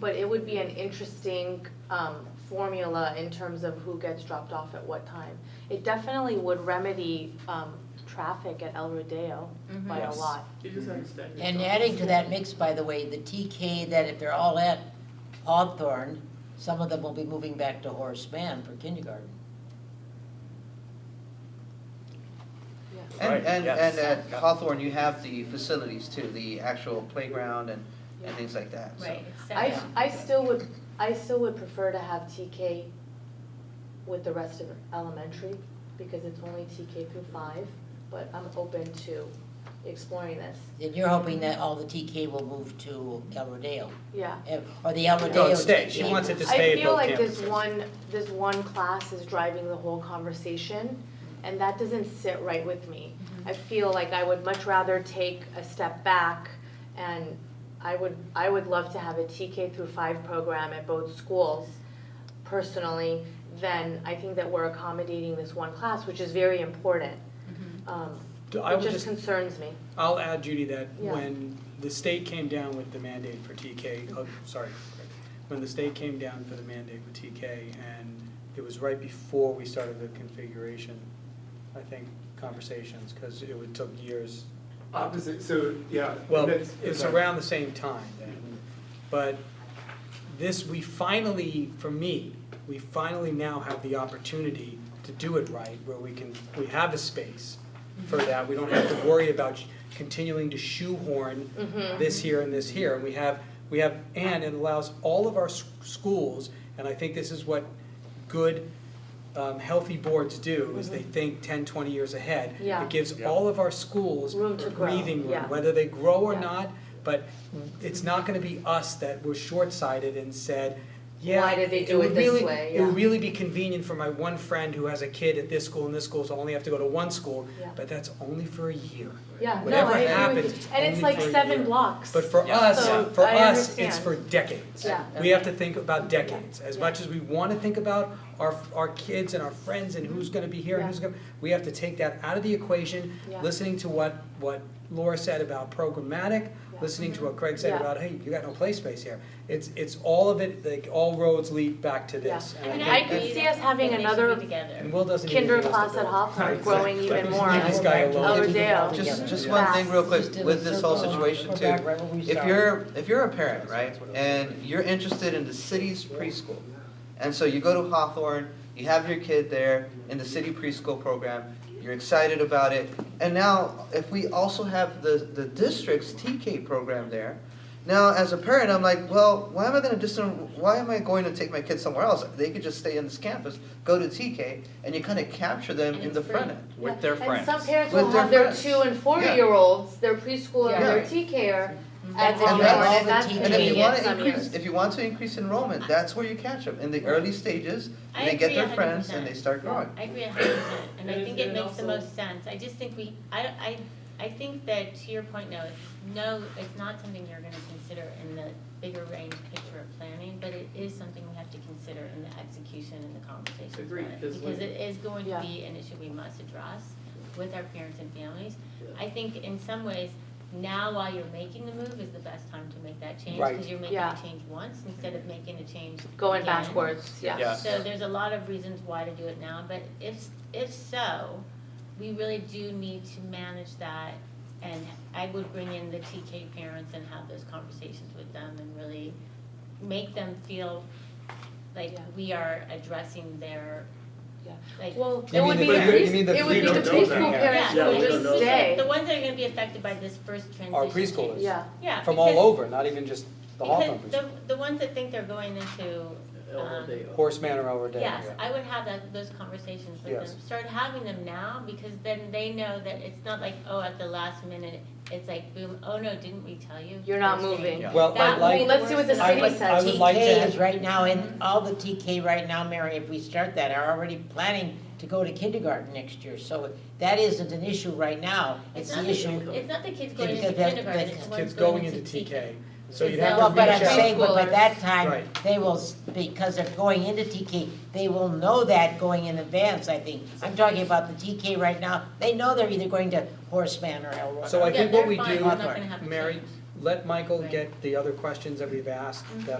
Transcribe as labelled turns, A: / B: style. A: But it would be an interesting um, formula in terms of who gets dropped off at what time. It definitely would remedy um, traffic at El Rodeo by a
B: Mhm.
A: lot.
C: You just have to stagger it
B: And
C: up.
B: adding to that mix, by the way, the TK, that if they're all at Hawthorne, some of them will be moving back to Horace Mann for kindergarten.
A: Yeah.
D: And,
E: Right,
D: and,
E: yes.
D: and at Hawthorne, you have the facilities too, the actual playground and, and things like that, so.
F: Right,
A: I,
F: exactly.
A: I still would, I still would prefer to have TK with the rest of elementary, because it's only TK through five, but I'm open to exploring this,
B: And you're hoping that all the TK will move to El Rodeo,
A: yeah.
B: eh, or the El
A: No, it
B: Rodeo.
E: stays. She
B: TK
E: wants it
B: moves.
E: to stay at both
A: I feel like this
E: campuses.
A: one, this one class is driving the whole conversation, and that doesn't sit right with me. I feel like I would much rather take a step back, and I would, I would love to have a TK through five program at both schools personally, then I think that we're accommodating this one class, which is very important. Um,
E: Do- I
A: It
E: would
A: just
E: just,
A: concerns me.
E: I'll add Judy that
A: Yeah.
E: when the state came down with the mandate for TK, oh, sorry, Greg. when the state came down for the mandate with TK and it was right before we started the configuration, I think, conversations, because it would took years.
G: Opposite, so, yeah.
E: Well,
G: that's-
E: it's
G: okay.
E: around the same time then, but this, we finally, for me, we finally now have the opportunity to do it right, where we can, we have a space for that, we don't have to worry about continuing to shoehorn
A: Mhm.
E: this here and this here, and we have, we have, and it allows all of our s- schools, and I think this is what good, um, healthy boards do, is they think 10, 20 years ahead.
A: Mm-hmm. Yeah.
E: It gives
H: Yeah.
E: all of our schools
A: Room to grow,
E: breathing
A: yeah.
E: room, whether they grow or
A: Yeah.
E: not, but it's not gonna be us that were short-sighted and said, yeah,
A: Why did they do
E: would
A: it this
E: really-
A: way?"
E: It would
A: Yeah.
E: really be convenient for my one friend who has a kid at this school and this school, so I only have to go to one school,
A: Yeah.
E: but that's only for a year.
A: Yeah, no,
E: Whatever
A: I agree
E: happens,
A: with you. And it's
E: only
A: like
E: for a
A: seven
E: year.
A: blocks.
E: But for
H: Yeah.
E: us,
A: So,
E: for
A: I
E: us, it's
A: understand.
E: for decades.
A: Yeah.
E: We have to think about decades, as much as we wanna think about our, our kids and our friends and who's gonna be here and
A: Yeah.
E: who's gonna, we have to take that out of the equation.
A: Yeah.
E: Listening to what, what Laura said about programmatic,
A: Yeah. Mm-hmm.
E: listening to what Craig said
A: Yeah.
E: about, hey, you got no play space here. It's, it's all of it, like, all roads lead back to this.
A: Yeah.
E: And I
A: mean,
E: think
A: I could
E: that-
A: see us having
F: They should be
A: another
F: together.
E: And Will doesn't even
A: kinder
E: give us the
A: class at
E: bill.
A: Hofstra growing even
E: Exactly.
A: more.
E: Leave this guy
B: We'll go back
E: alone.
B: to everything
A: Overdale.
B: all
D: Just,
B: together.
D: just one thing real quick
B: Just did a
D: with this whole
B: circle and
D: situation
B: we're
D: too.
B: back right where we
D: If
B: started.
D: you're, if you're a parent, right, and you're interested in the city's preschool, and so you go to Hawthorne, you have your kid there in the city preschool program, you're excited about it, and now if we also have the, the district's TK program there, now as a parent, I'm like, well, why am I gonna dis, why am I going to take my kid somewhere else? They could just stay in this campus, go to TK, and you kinda capture them
F: And
D: in
F: it's
D: the
F: free.
D: front end.
H: with their friends.
A: And some parents will
D: With their
A: have their
D: friends.
A: two and four
D: Yeah.
A: year olds, their preschooler and their
D: Yeah.
A: TKer at
B: That's
D: all
A: Hawthorne,
D: the- all
A: and
B: the
A: that's
B: teen
D: And if you wanna
A: convenient some
D: increase,
A: years.
D: if you want to increase enrollment, that's where you catch them, in the early stages,
F: I
D: and they get
F: agree a
D: their
F: hundred
D: friends and they
F: percent.
D: start growing.
F: I agree a hundred percent, and I
C: And
F: think
C: it-
F: it
C: and
F: makes the
C: also-
F: most sense, I just think we, I, I, I think that to your point, no, it's- no, it's not something you're gonna consider in the bigger range picture of planning, but it is something we have to consider in the execution and the conversations about
C: Agreed,
F: it.
C: 'cause
F: Because
C: when-
F: it is going to
A: Yeah.
F: be an issue we must address with our parents and families. I think in some ways, now while you're making the move is the best time to make that change,
E: Right.
F: because you're making
A: Yeah.
F: a change once instead of making a change
A: Going
F: again.
A: backwards, yeah.
H: Yeah.
F: So there's a lot of reasons why to do it now, but if, if so, we really do need to manage that. And I would bring in the TK parents and have those conversations with them and really make them feel like
A: Yeah.
F: we are addressing their,
A: Yeah.
F: like.
A: Well,
E: You
A: it
E: mean
A: would
E: the
A: be
C: pre-
A: the
C: you
A: pres-
E: mean the
A: it would be
C: pre-
A: the
C: don't know that.
A: preschool parents
C: Yeah,
A: who
C: we don't
A: would
C: know that.
A: stay.
F: The ones that are gonna be affected by this first transition.
E: Our preschoolers.
A: Yeah,
F: Yeah.
E: From all
F: because-
E: over, not even just the Hawthorne
F: Because
E: preschool,
F: the, the ones that think they're going into, um,
C: Although they-
E: Horace Manor over there.
F: yes, I would have that, those conversations with
E: Yes.
F: them. Start having them now, because then they know that it's not like, oh, at the last minute, it's like, boom, oh no, didn't we tell you?
A: you're not
F: First thing.
A: moving.
H: Yeah.
E: Well,
F: That
E: I'd
F: would
E: like.
F: be
A: Let's see what the
F: worst
E: I
A: city
E: would-
F: thing.
A: says.
E: I would like to-
B: TK is right now, and all the TK right now, Mary, if we start that, are already planning to go to kindergarten next year, so that isn't an issue right now, it's
F: not
B: the
F: the-
B: issue.
F: It's not the kids going
B: Because
F: into
B: that's-
F: kindergarten,
B: that's
F: it's the
E: Kids
F: ones
E: going into TK, so you'd have to reach out.
B: Well, but I'm saying, but by
A: Preschoolers.
B: that time,
E: Right.
B: they will, s- because they're going into TK, they will know that going in advance, I think. I'm talking about the TK right now, they know they're either going to Horseman or El Rodeo.
E: So I
F: Yeah,
E: think what
F: they're
E: we
F: fine,
E: do,
F: they're not gonna have to
E: Mary,
F: change.
E: let Michael
F: Right.
E: get the other questions that we've asked that